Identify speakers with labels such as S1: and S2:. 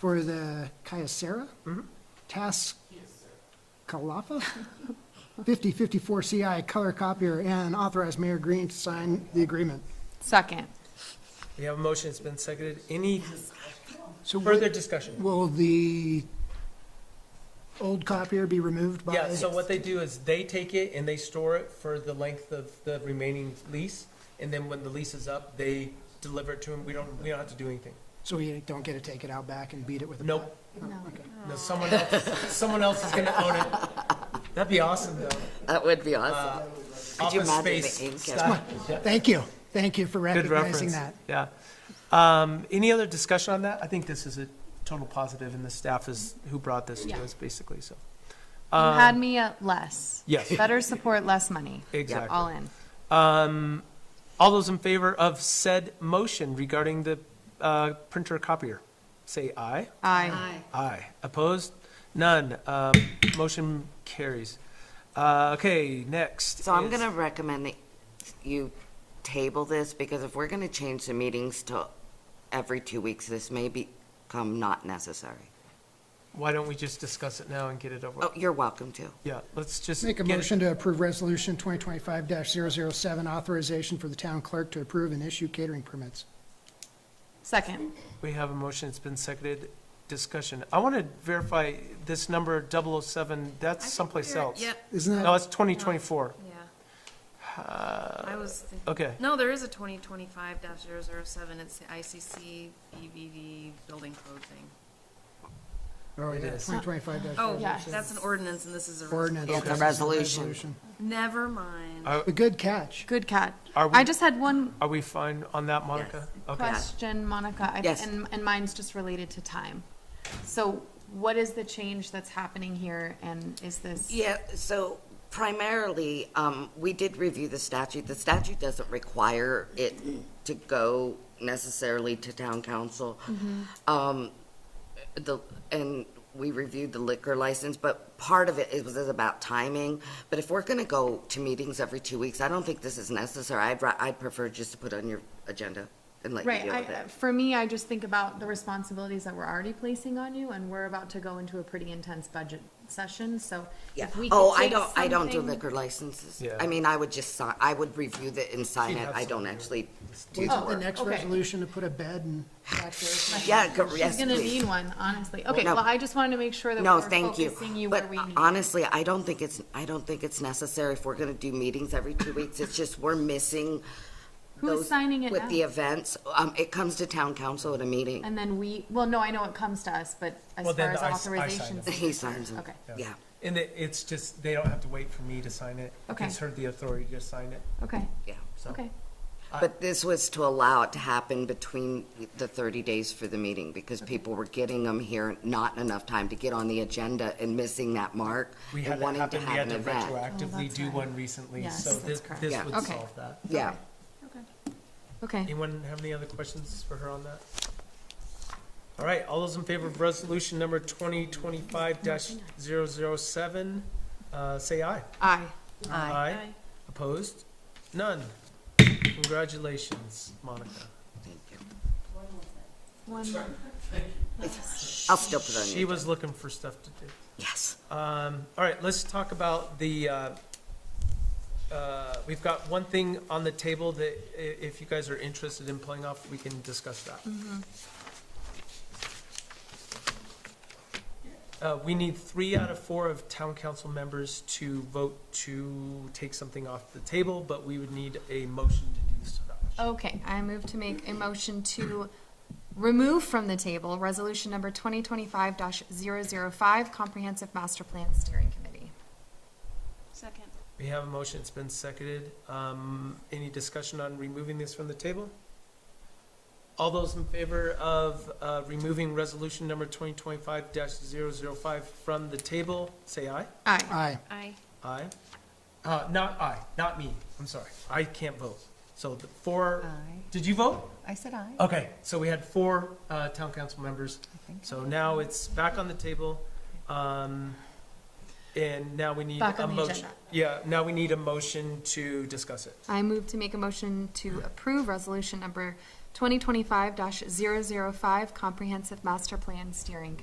S1: for the Kyocera?
S2: Mm-hmm.
S1: Task Kalafa? 5054 CI color copier and authorize Mayor Green to sign the agreement.
S3: Second.
S2: We have a motion, it's been seconded. Any
S1: So wi-
S2: further discussion?
S1: will the old copier be removed by?
S2: Yeah, so what they do is they take it and they store it for the length of the remaining lease, and then when the lease is up, they deliver it to them. We don't, we don't have to do anything.
S1: So we don't get to take it out back and beat it with a?
S2: Nope.
S1: Oh, okay.
S2: No, someone else, someone else is gonna own it. That'd be awesome, though.
S4: That would be
S2: Uh,
S4: awesome. Could you
S2: Office
S4: imagine the
S2: space
S4: ink and-
S2: style. Yeah.
S1: Thank you. Thank you for
S2: Good
S1: recognizing
S2: reference.
S1: that.
S2: Yeah. Um, any other discussion on that? I think this is a total positive, and the staff is, who brought this to
S3: Yeah.
S2: us, basically, so.
S3: You had me at less.
S2: Um, Yes.
S3: Better support, less money.
S2: Exactly.
S3: All in.
S2: Um, all those in favor of said motion regarding the, uh, printer copier, say aye.
S3: Aye.
S2: Aye. Opposed? None. Um, motion carries. Uh, okay, next.
S4: So I'm
S2: is-
S4: going to recommend that you table this because if we're going to change the meetings to every two weeks, this may become not necessary.
S2: Why don't we just discuss it now and get it over?
S4: Oh, you're welcome to.
S2: Yeah, let's just.
S1: Make a
S2: get it-
S1: motion to approve Resolution 2025-007, authorization for the town clerk to approve and issue catering permits.
S3: Second.
S2: We have a motion, it's been seconded, discussion. I want to verify this number 007, that's someplace else.
S1: Isn't
S2: No,
S1: that,
S2: it's 2024.
S5: Yeah. I was thinking.
S2: Uh, Okay.
S5: No, there is a twenty twenty-five 7 it's the ICC EVD E building code thing.
S1: oh, yeah,
S2: is.
S1: 2025-007.
S5: Oh,
S3: Yeah.
S5: that's an ordinance and this is a. res-
S1: Ordinance.
S4: Yeah, the resolution.
S5: Never mind.
S2: Uh,
S1: A good catch.
S3: Good catch.
S2: Are we-
S3: I just had one
S2: Are we fine on that, Monica? Okay.
S3: question, Monica. I-
S4: Yes.
S3: And, and mine's just related to time. So what is the change that's happening here and is this?
S4: Yeah, so primarily, um, we did review the statute. The statute doesn't require it to go necessarily to town council.
S3: Mm-hmm.
S4: Um, the, and we reviewed the liquor license, but part of it, it was about timing. But if we're gonna go to meetings every two weeks, I don't think this is necessary. I'd, ra- I'd prefer just to put on your agenda and let you
S3: Right,
S4: deal with
S3: I,
S4: it.
S3: for me, I just think about the responsibilities that we're already placing on you, and we're about to go into a pretty intense budget session, so
S4: Yeah.
S3: if we could
S4: Oh, I
S3: take
S4: don't, I don't do
S3: something-
S4: liquor licenses.
S2: Yeah.
S4: I mean, I would just sign, I would review it and sign
S2: She'd
S4: it.
S2: have
S4: I don't
S2: some.
S4: actually do
S1: Wait
S4: the
S1: till the
S4: work.
S1: next
S3: okay.
S1: resolution to put a bed and
S4: Yeah, go- yes,
S3: She's gonna
S4: please.
S3: need one, honestly. Okay,
S4: No.
S3: well, I just wanted to make sure that
S4: No,
S3: we're
S4: thank you.
S3: focusing you where
S4: But
S3: we need.
S4: honestly, I don't think it's, I don't think it's necessary if we're gonna do meetings every two weeks. It's just we're missing.
S3: Who's
S4: those-
S3: signing it
S4: With the
S3: now?
S4: events, um, it comes to town council at a meeting.
S3: And then we, well, no, I know it comes to us, but as
S2: Well, then
S3: far as
S2: I s- I sign
S3: authorizations.
S4: He signs them.
S3: Okay.
S4: Yeah.
S2: And it, it's just, they don't have to wait for me to sign it.
S3: Okay.
S2: It's her, the authority to sign it,
S3: Okay,
S4: Yeah, so.
S3: okay.
S4: But this was to allow it to happen between the 30 days for the meeting because people were getting them here, not enough time to get on the agenda and missing that mark
S2: We had
S4: and
S2: that
S4: wanting to
S2: happen, we
S4: have
S2: had
S4: an
S2: to
S4: event.
S2: retroactively
S3: that's
S2: do
S3: right.
S2: one recently,
S3: Yes,
S2: so
S3: that's
S2: this,
S3: correct.
S2: this
S4: Yeah.
S2: would
S3: Okay.
S2: solve that.
S4: Yeah.
S3: Okay,
S2: Anyone have any other questions for her on that? All right, all those in favor of resolution number twenty twenty-five 7 uh, say aye.
S3: aye.
S2: Aye. Opposed? None. Congratulations, Monica.
S4: Thank you.
S3: One,
S4: I'll still put on
S2: She
S4: you.
S2: was looking for stuff to do.
S4: Yes.
S2: Um, all right, let's talk about the, uh, uh, we've got one thing on the table that i- if you guys are interested in playing off, we can discuss that. Uh, we need three out of four of town council members to vote to take something off the table, but we would need a motion to do so.
S3: Okay, I move to make a motion to remove from the table resolution number twenty twenty-five 5 comprehensive master plan steering committee.
S5: Second.
S2: We have a motion, it's been seconded. Um, any discussion on removing this from the table? All those in favor of, uh, removing resolution number twenty twenty-five 5 from the table, say aye.
S3: Aye.
S1: aye.
S5: Aye.
S2: Aye. Uh, not aye, not me, I'm sorry, I can't vote. So the four, did you vote?
S6: I said aye.
S2: Okay, so we had four, uh, town council members,
S6: think
S2: so now it's back on the table. Um, and now we need
S3: Back
S2: a
S3: on the
S2: motion.
S3: agenda.
S2: Yeah, now we need a motion to discuss it.
S3: I move to make a motion to approve resolution number
S7: 2025-005 Comprehensive Master Plan Steering